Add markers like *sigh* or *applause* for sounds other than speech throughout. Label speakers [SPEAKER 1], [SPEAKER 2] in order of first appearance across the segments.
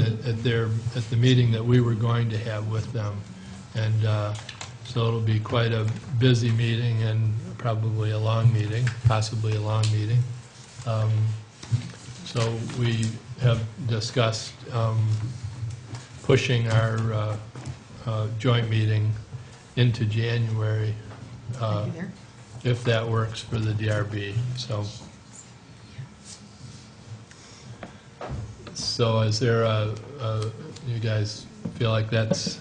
[SPEAKER 1] at their, at the meeting that we were going to have with them. And uh, so it'll be quite a busy meeting and probably a long meeting, possibly a long meeting. Um, So we have discussed um, pushing our uh, uh, joint meeting into January, uh,
[SPEAKER 2] Thank you there.
[SPEAKER 1] if that works for the DRB, so. So is there a, a- you guys feel like that's,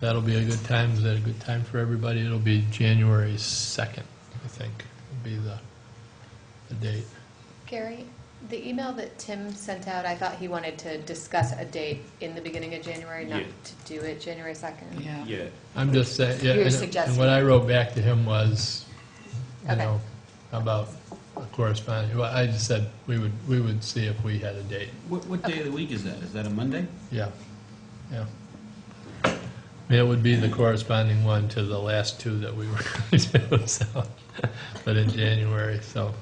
[SPEAKER 1] that'll be a good time, is that a good time for everybody? It'll be January 2nd, I think, would be the, the date.
[SPEAKER 3] Gary, the email that Tim sent out, I thought he wanted to discuss a date in the beginning of January, not
[SPEAKER 4] Yeah.
[SPEAKER 3] to do it January 2nd.
[SPEAKER 2] Yeah.
[SPEAKER 4] Yeah,
[SPEAKER 1] I'm just saying, yeah.
[SPEAKER 3] You're
[SPEAKER 1] and- And
[SPEAKER 3] suggesting.
[SPEAKER 1] what I wrote back to him was, you
[SPEAKER 3] Okay.
[SPEAKER 1] know, about corresponding, well, I just said, we would, we would see if we had a date.
[SPEAKER 5] What, what day of the week is that? Is that a Monday?
[SPEAKER 1] Yeah, yeah. It would be the corresponding one to the last two that we *laughs* were going to do, so, but in January, so.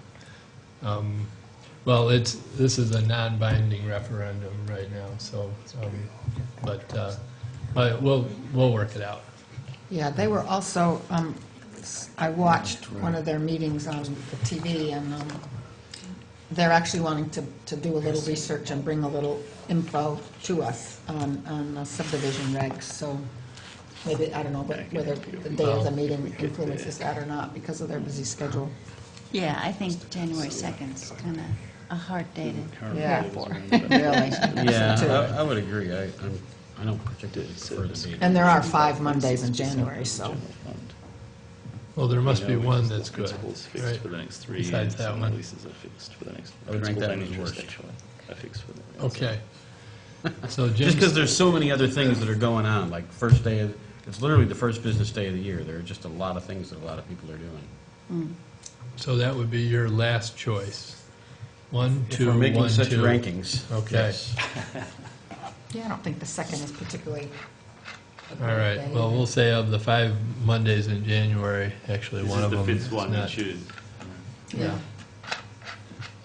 [SPEAKER 1] um, Well, it's, this is a non-binding referendum right now, so, um, but, uh, but we'll, we'll work it out.
[SPEAKER 2] Yeah, they were also, um, s- I watched one of their meetings on the TV, and um, they're actually wanting to, to do a little research and bring a little info to us on, on the subdivision regs, so maybe, I don't know, but whether the day of the meeting influences that or not because of their busy
[SPEAKER 1] *laughs*
[SPEAKER 2] schedule.
[SPEAKER 6] Yeah, I think January 2nd's kind of a hard day to
[SPEAKER 2] Yeah.
[SPEAKER 6] prepare for.
[SPEAKER 2] *laughs* Really?
[SPEAKER 5] Yeah, I, I would agree. I, I'm, I don't particularly prefer the meeting.
[SPEAKER 2] And there are five Mondays in January, so,
[SPEAKER 1] Well, there must be
[SPEAKER 4] You know,
[SPEAKER 1] one
[SPEAKER 4] because the
[SPEAKER 1] that's good,
[SPEAKER 4] Principal's fixed
[SPEAKER 1] right?
[SPEAKER 4] for the next three.
[SPEAKER 1] Besides
[SPEAKER 4] and
[SPEAKER 1] that
[SPEAKER 4] some
[SPEAKER 1] one.
[SPEAKER 4] Leases are fixed for the next.
[SPEAKER 5] I would rank that
[SPEAKER 4] principal
[SPEAKER 5] one as
[SPEAKER 4] financial
[SPEAKER 5] worst.
[SPEAKER 4] actually, are fixed for the.
[SPEAKER 1] Okay. So
[SPEAKER 5] *laughs* Just because
[SPEAKER 1] Jim's,
[SPEAKER 5] there's so many other things that are going on, like first day of, it's literally the first business day of the year. There are just a lot of things that a lot of people are doing.
[SPEAKER 1] so that would be your last choice. One,
[SPEAKER 5] If
[SPEAKER 1] two,
[SPEAKER 5] we're
[SPEAKER 1] one, two.
[SPEAKER 5] making such rankings.
[SPEAKER 1] Okay.
[SPEAKER 5] yes.
[SPEAKER 2] yeah, I don't think the second is particularly. a
[SPEAKER 1] All
[SPEAKER 2] great
[SPEAKER 1] right,
[SPEAKER 2] day.
[SPEAKER 1] well, we'll say of the five Mondays in January, actually,
[SPEAKER 4] This
[SPEAKER 1] one
[SPEAKER 4] is
[SPEAKER 1] of
[SPEAKER 4] the
[SPEAKER 1] them is
[SPEAKER 4] fifth one, you
[SPEAKER 1] not.
[SPEAKER 4] should.
[SPEAKER 1] Yeah.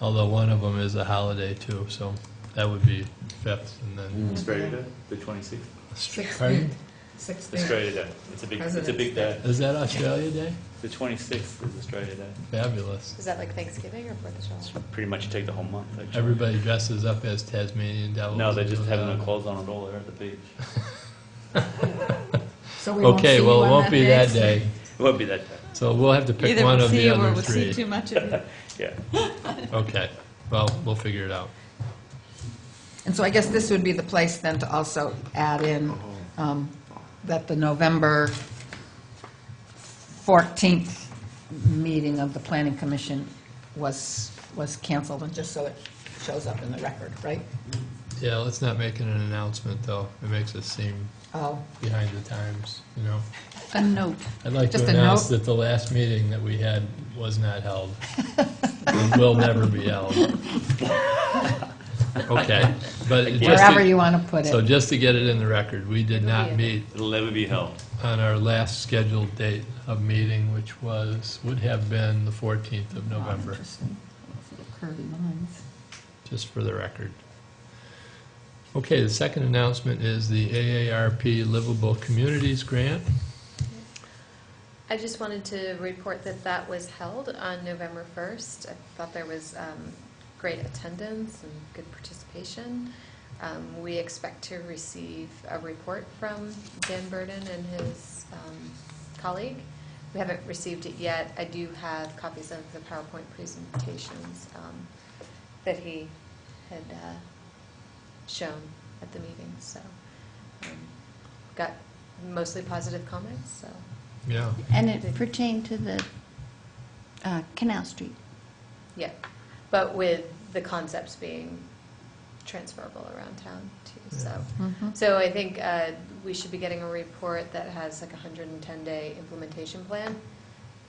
[SPEAKER 1] Although one of them is a holiday too, so that would be fifth and then.
[SPEAKER 4] Australia Day, the twenty-sixth.
[SPEAKER 1] Pardon?
[SPEAKER 2] Sixth
[SPEAKER 4] Australia Day, it's a big, it's a big day.
[SPEAKER 1] Is that Australia Day?
[SPEAKER 4] The twenty-sixth is Australia Day.
[SPEAKER 1] Fabulous.
[SPEAKER 3] Is that like Thanksgiving or Fourth of July?
[SPEAKER 4] Pretty much take the whole month, actually.
[SPEAKER 1] Everybody dresses up as Tasmanian devils.
[SPEAKER 4] No, they just have no
[SPEAKER 1] Uh,
[SPEAKER 4] clothes on at all, they're at the beach.
[SPEAKER 2] So we won't see
[SPEAKER 1] Okay,
[SPEAKER 2] you
[SPEAKER 1] well, it
[SPEAKER 2] on
[SPEAKER 1] won't be that day,
[SPEAKER 4] It won't be that day,
[SPEAKER 1] so we'll have to pick
[SPEAKER 6] Either
[SPEAKER 1] one
[SPEAKER 6] we'll
[SPEAKER 1] of
[SPEAKER 6] see
[SPEAKER 1] the
[SPEAKER 6] you or
[SPEAKER 1] other
[SPEAKER 6] we'll see
[SPEAKER 1] three.
[SPEAKER 6] too much of you.
[SPEAKER 4] yeah.
[SPEAKER 1] Okay, well, we'll figure it out.
[SPEAKER 2] And so I guess this would be the place then to also add in um, that the November 14th meeting of the Planning Commission was, was canceled, and just so it shows up in the record, right?
[SPEAKER 1] Yeah, let's not make it an announcement though. It makes us seem
[SPEAKER 2] Oh,
[SPEAKER 1] behind the times, you know?
[SPEAKER 6] A note.
[SPEAKER 1] I'd like to
[SPEAKER 2] Just a
[SPEAKER 1] announce
[SPEAKER 2] note.
[SPEAKER 1] that the last meeting that we had was not held. And will never be held. Okay, but just to-
[SPEAKER 2] wherever you want to put
[SPEAKER 1] So
[SPEAKER 2] it.
[SPEAKER 1] just to get it in the record, we did not meet
[SPEAKER 4] It'll never be held.
[SPEAKER 1] on our last scheduled date of meeting, which was, would have been the 14th of November,
[SPEAKER 2] Interesting. Curvy lines.
[SPEAKER 1] just for the record. Okay, the second announcement is the AARP Livable Communities Grant.
[SPEAKER 3] I just wanted to report that that was held on November 1st. I thought there was um, great attendance and good participation. Um, We expect to receive a report from Dan Burden and his um, colleague. We haven't received it yet. I do have copies of the PowerPoint presentations um, that he had uh, shown at the meeting, so um, got mostly positive comments, so
[SPEAKER 1] Yeah.
[SPEAKER 6] And it pertained to the uh, Canal Street.
[SPEAKER 3] Yeah, but with the concepts being transferable around town too, so.
[SPEAKER 2] Mhm.
[SPEAKER 3] So I think uh, we should be getting a report that has like a hundred and ten day implementation plan.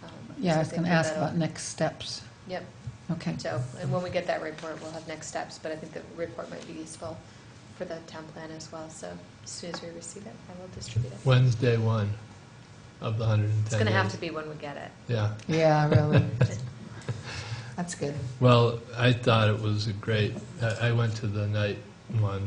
[SPEAKER 3] Um,
[SPEAKER 2] Yeah,
[SPEAKER 3] so
[SPEAKER 2] I was going
[SPEAKER 3] think
[SPEAKER 2] to
[SPEAKER 3] that
[SPEAKER 2] ask
[SPEAKER 3] that'll-
[SPEAKER 2] about next steps.
[SPEAKER 3] Yep,
[SPEAKER 2] Okay.
[SPEAKER 3] so, and when we get that report, we'll have next steps, but I think the report might be useful for the town plan as well, so as soon as we receive it, I will distribute it.
[SPEAKER 1] Wednesday one of the 110
[SPEAKER 3] It's gonna have
[SPEAKER 1] days.
[SPEAKER 3] to be when we get it.
[SPEAKER 1] Yeah.
[SPEAKER 2] Yeah, really.
[SPEAKER 6] *laughs*
[SPEAKER 2] That's good.
[SPEAKER 1] Well, I thought it was a great, I I went to the night one,